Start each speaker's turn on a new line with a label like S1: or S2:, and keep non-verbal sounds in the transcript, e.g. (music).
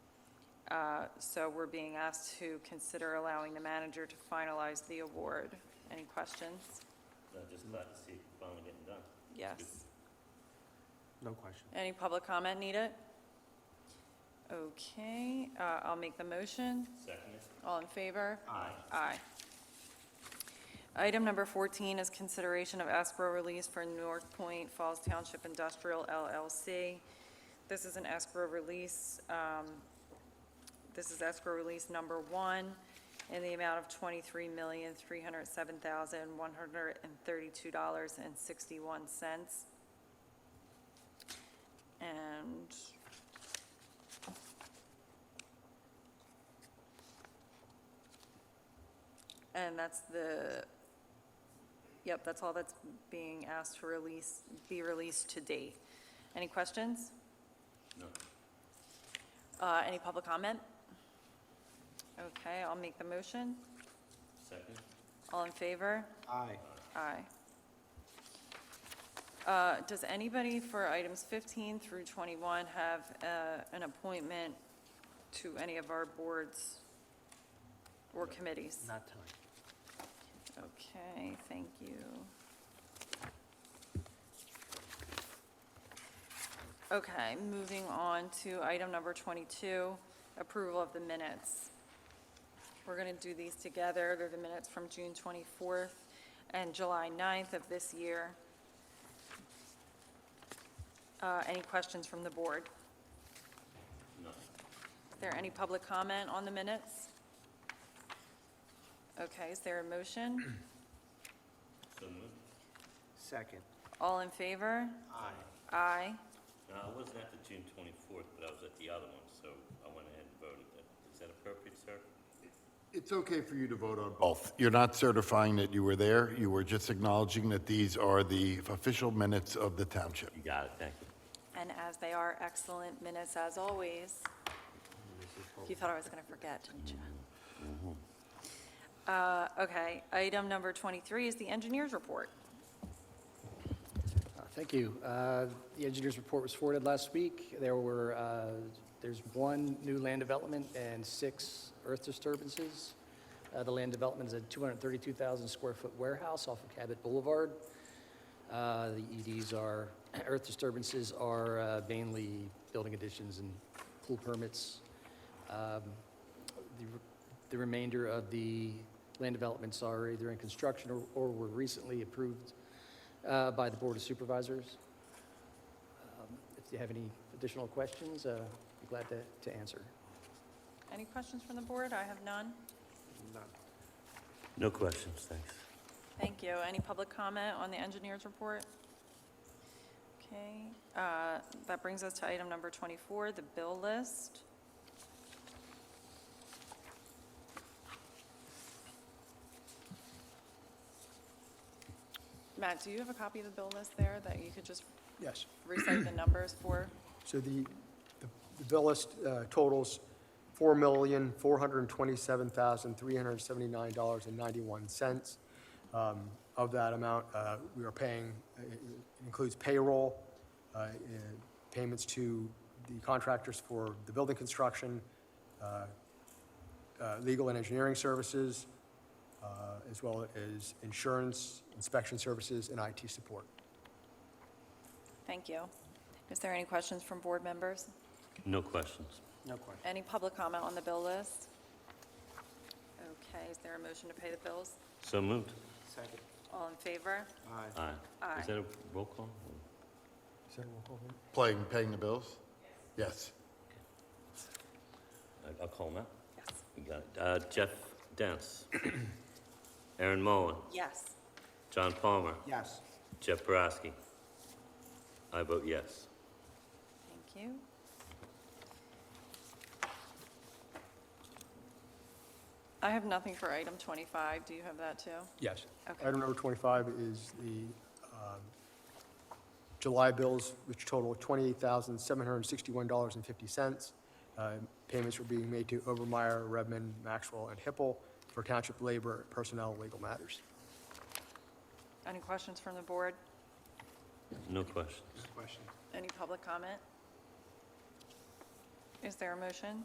S1: Uh, So we're being asked to consider allowing the manager to finalize the award. Any questions?
S2: I'm just
S3: Mm.
S2: glad to see it finally getting done.
S1: Yes.
S3: No question.
S1: Any public comment needed? Okay, uh, I'll make the motion.
S2: Second it?
S1: All in favor?
S2: Aye.
S1: Aye. Item number 14 is consideration of escrow release for North Point Falls Township Industrial LLC. This is an escrow release, um, this is escrow release number one in the amount of $23,307,132.61. And And that's the, yep, that's all that's being asked to release, be released to date. Any questions?
S2: No.
S1: Uh, any public comment? Okay, I'll make the motion.
S2: Second?
S1: All in favor?
S3: Aye.
S1: Aye. Uh, Does anybody for items 15 through 21 have uh, an appointment to any of our boards or committees?
S3: Not tonight.
S1: Okay, thank you. Okay, moving on to item number 22, approval of the minutes. We're going to do these together. They're the minutes from June 24th and July 9th of this year. Uh, Any questions from the board?
S2: No.
S1: Is there any public comment on the minutes? Okay, is there a motion?
S2: So moved.
S3: Second.
S1: All in favor?
S3: Aye.
S1: Aye.
S2: Now, I wasn't at the June twenty-fourth, but I was at the other one, so I went ahead and voted. Is that appropriate, sir?
S4: It's okay for you to vote on both. You're not certifying that you were there. You were just acknowledging that these are the official minutes of the township.
S2: You got it, thank you.
S1: And as they are excellent minutes as always. You thought I was going to forget, didn't you? Uh, Okay, item number 23 is the engineer's report.
S5: Uh, Thank you. Uh, The engineer's report was forwarded last week. There were, uh, there's one new land development and six earth disturbances. Uh, The land development is a 232,000 square foot warehouse off of Cabot Boulevard. Uh, The EDs are, (clears throat) earth disturbances are uh, mainly building additions and pool permits. Um, The the remainder of the land developments are either in construction or- or were recently approved uh, by the Board of Supervisors. Um, If you have any additional questions, uh, be glad to to answer.
S1: Any questions from the board? I have none.
S3: None.
S2: No questions, thanks.
S1: Thank you. Any public comment on the engineer's report? Okay, uh, that brings us to item number 24, the bill list. Matt, do you have a copy of the bill list there that you could just
S6: Yes,
S1: recite the numbers for?
S6: so the, the- the bill list uh, totals four million, four hundred and twenty-seven thousand, three hundred and seventy-nine dollars and ninety-one cents. Um, Of that amount, uh, we are paying, uh, it includes payroll, uh, uh, payments to the contractors for the building construction, uh, uh, legal and engineering services, uh, as well as insurance, inspection services, and IT support.
S1: Thank you. Is there any questions from board members?
S2: No questions.
S3: No question.
S1: Any public comment on the bill list? Okay, is there a motion to pay the bills?
S2: So moved.
S3: Second.
S1: All in favor?
S3: Aye.
S2: Aye.
S1: Aye.
S2: Is that a roll call?
S4: Playing, paying the bills? Yes.
S2: I- I'll call now.
S1: Yes.
S2: You got it. Uh, Jeff (coughs) Dance. Aaron Mullen.
S1: Yes.
S2: John Palmer.
S3: Yes.
S2: Jeff Boraski. I vote yes.
S1: Thank you. I have nothing for item 25. Do you have that, too?
S6: Yes.
S1: Okay.
S6: Item number 25 is the um, July bills, which total $28,761.50. Uh, Payments were being made to Obermeyer, Redmond, Maxwell, and Hippel for township labor, personnel, and legal matters.
S1: Any questions from the board?
S2: No questions.
S3: No question.
S1: Any public comment? Is there a motion?